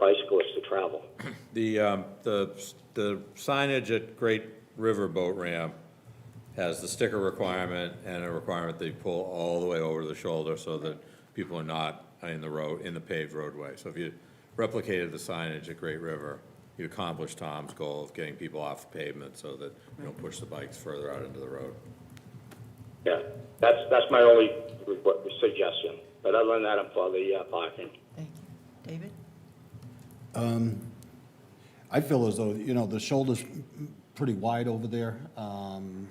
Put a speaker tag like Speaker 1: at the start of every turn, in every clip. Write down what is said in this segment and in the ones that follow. Speaker 1: bicyclists to travel.
Speaker 2: The, um, the, the signage at Great River Boat Ramp has the sticker requirement and a requirement that you pull all the way over the shoulder so that people are not in the road, in the paved roadway. So if you replicated the signage at Great River, you accomplished Tom's goal of getting people off the pavement so that you don't push the bikes further out into the road.
Speaker 1: Yeah, that's, that's my only requ- suggestion. But other than that, I'm for the uh, parking.
Speaker 3: Thank you. David?
Speaker 4: I feel as though, you know, the shoulder's pretty wide over there. Um,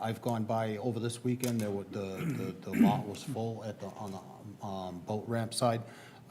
Speaker 4: I've gone by over this weekend, there were, the, the the lot was full at the, on the um, boat ramp side.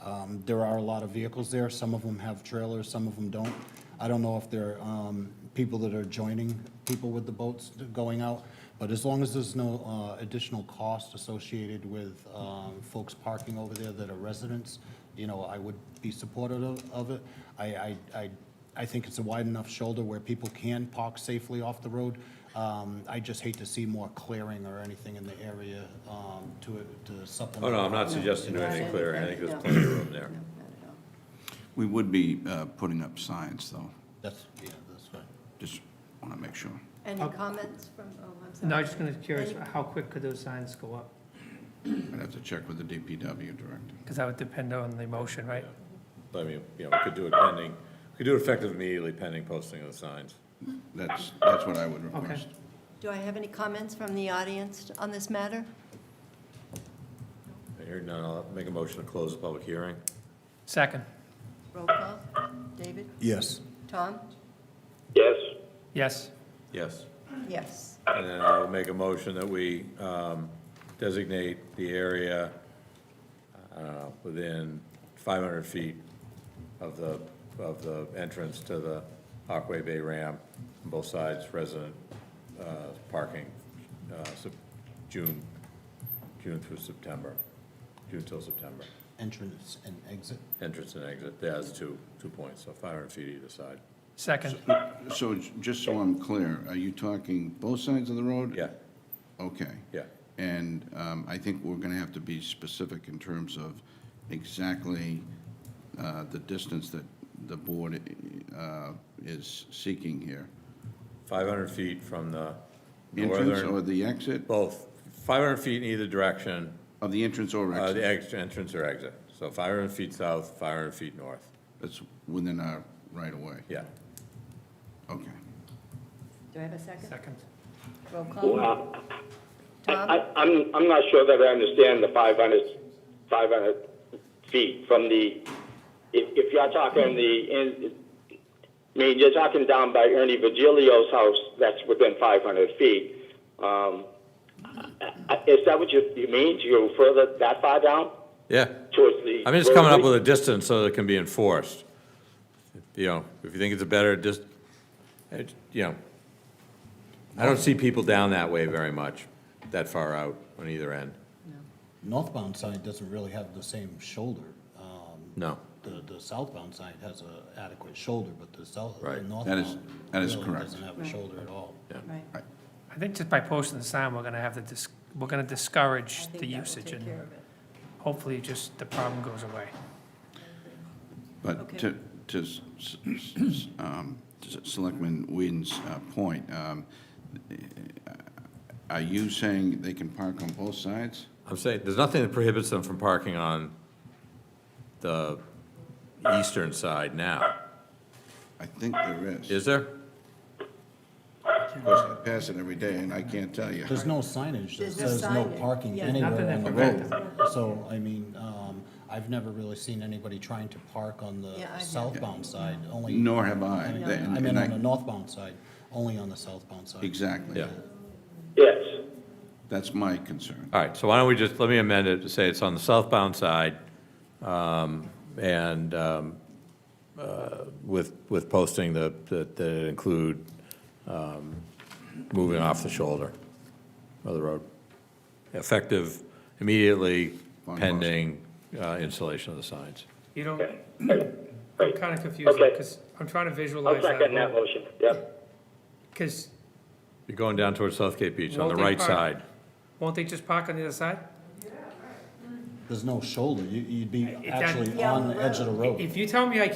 Speaker 4: Um, There are a lot of vehicles there, some of them have trailers, some of them don't. I don't know if they're um, people that are joining people with the boats going out, but as long as there's no uh, additional cost associated with um, folks parking over there that are residents, you know, I would be supportive of- of it. I, I, I I think it's a wide enough shoulder where people can park safely off the road. Um, I just hate to see more clearing or anything in the area, um, to, to
Speaker 2: Oh,
Speaker 4: supplement.
Speaker 2: no, I'm not suggesting doing anything clear. I think there's plenty of room there.
Speaker 3: No, not at all.
Speaker 5: We would be uh, putting up signs, though.
Speaker 4: That's, yeah, that's right.
Speaker 5: Just want to make sure.
Speaker 3: Any comments from, oh, I'm sorry.
Speaker 6: No, I was just kind of curious,
Speaker 3: Any-
Speaker 6: how quick could those signs go up?
Speaker 5: I'd have to check with the DPW director.
Speaker 6: Because that would depend on the motion, right?
Speaker 2: But I mean, you know, we could do it pending, we could do it effective immediately pending posting of the signs.
Speaker 5: That's, that's what I would request.
Speaker 3: Do I have any comments from the audience on this matter?
Speaker 2: I hear none. I'll make a motion to close the public hearing.
Speaker 6: Second,
Speaker 3: Roll call. David?
Speaker 4: Yes.
Speaker 3: Tom?
Speaker 1: Yes,
Speaker 6: yes,
Speaker 2: Yes.
Speaker 3: Yes.
Speaker 2: And then I'll make a motion that we um, designate the area, I don't know, within 500 feet of the, of the entrance to the Aquay Bay ramp, on both sides, resident uh, parking, uh, Sep- June, June through September, June till September.
Speaker 4: Entrance and exit.
Speaker 2: Entrance and exit, there's two, two points, so 500 feet either side.
Speaker 6: second,
Speaker 5: So j- just so I'm clear, are you talking both sides of the road?
Speaker 2: Yeah,
Speaker 5: Okay.
Speaker 2: yeah.
Speaker 5: And um, I think we're going to have to be specific in terms of exactly uh, the distance that the board uh, is seeking here.
Speaker 2: 500 feet from the
Speaker 5: Entrance or
Speaker 2: northern,
Speaker 5: the exit?
Speaker 2: both, 500 feet in either direction,
Speaker 5: Of the entrance or
Speaker 2: Uh, the
Speaker 5: exit?
Speaker 2: ex- entrance or exit, so 500 feet south, 500 feet north,
Speaker 5: That's within our right-of-way?
Speaker 2: yeah.
Speaker 5: Okay.
Speaker 3: Do I have a second?
Speaker 6: second.
Speaker 3: Roll call.
Speaker 1: Well, I,
Speaker 3: Tom?
Speaker 1: I- I'm, I'm not sure that I understand the 500, 500 feet from the, if, if you're talking the, in- I mean, you're talking down by Ernie Virgilio's house, that's within 500 feet. Um, I- I- Is that what you, you mean, to go further, that far down
Speaker 2: Yeah,
Speaker 1: towards the?
Speaker 2: I'm just coming up
Speaker 1: roadway?
Speaker 2: with a distance so that it can be enforced. You know, if you think it's a better, just, you know, I don't see people down that way very much, that far out on either end,
Speaker 4: Northbound side doesn't really have the same shoulder. Um,
Speaker 2: no.
Speaker 4: The, the southbound side has a adequate shoulder, but the south, the
Speaker 2: Right.
Speaker 4: northbound.
Speaker 5: That is- that is
Speaker 4: really
Speaker 5: correct.
Speaker 4: Doesn't have a
Speaker 3: Right.
Speaker 4: shoulder at all.
Speaker 3: Right.
Speaker 6: I think just by posting the sign, we're going to have to, dis- we're going to
Speaker 3: I
Speaker 6: discourage the
Speaker 3: think that will
Speaker 6: usage,
Speaker 3: take
Speaker 6: and
Speaker 3: care of it.
Speaker 6: hopefully just the problem goes away.
Speaker 5: But to, to s- s- s- um, to Selectman Whedon's uh, point, um, uh, are you saying they can park on both sides?
Speaker 2: I'm saying, there's nothing that prohibits them from parking on the eastern side now,
Speaker 5: I think there is.
Speaker 2: is there?
Speaker 5: Of course, I pass it every day, and I can't tell you.
Speaker 4: There's no signage that
Speaker 3: There's no
Speaker 4: says no
Speaker 3: signage.
Speaker 4: parking
Speaker 3: Yeah.
Speaker 4: anywhere
Speaker 6: Nothing
Speaker 4: on the
Speaker 6: that
Speaker 4: road. So, I mean, um, I've never really seen anybody trying to park on
Speaker 3: Yeah, I've
Speaker 4: the
Speaker 3: never.
Speaker 4: southbound side, only.
Speaker 5: Nor have I.
Speaker 4: I mean,
Speaker 5: And-
Speaker 4: I mean,
Speaker 5: and
Speaker 4: on the northbound side, only on the southbound side.
Speaker 5: Exactly.
Speaker 2: Yeah.
Speaker 1: Yes.
Speaker 5: That's my concern.
Speaker 2: All right, so why don't we just, let me amend it to say it's on the southbound side, um, and um, uh, with, with posting the, that that it include um, moving off the shoulder of the road, effective immediately
Speaker 5: Fine, boss.
Speaker 2: pending uh, installation of the signs.
Speaker 6: You don't, I'm
Speaker 1: Right.
Speaker 6: kind of confused,
Speaker 1: Okay.
Speaker 6: because I'm trying to
Speaker 1: I'll
Speaker 6: visualize
Speaker 1: second that
Speaker 6: that.
Speaker 1: motion, yep.
Speaker 6: Because
Speaker 2: You're going down towards Southgate Beach on the
Speaker 6: Won't they
Speaker 2: right
Speaker 6: park-
Speaker 2: side.
Speaker 6: won't they just park on the other side?
Speaker 4: There's no shoulder, you, you'd be
Speaker 6: It's on-
Speaker 4: actually
Speaker 3: Yeah, on
Speaker 4: on
Speaker 3: the
Speaker 4: the edge of the road.
Speaker 6: If you tell me I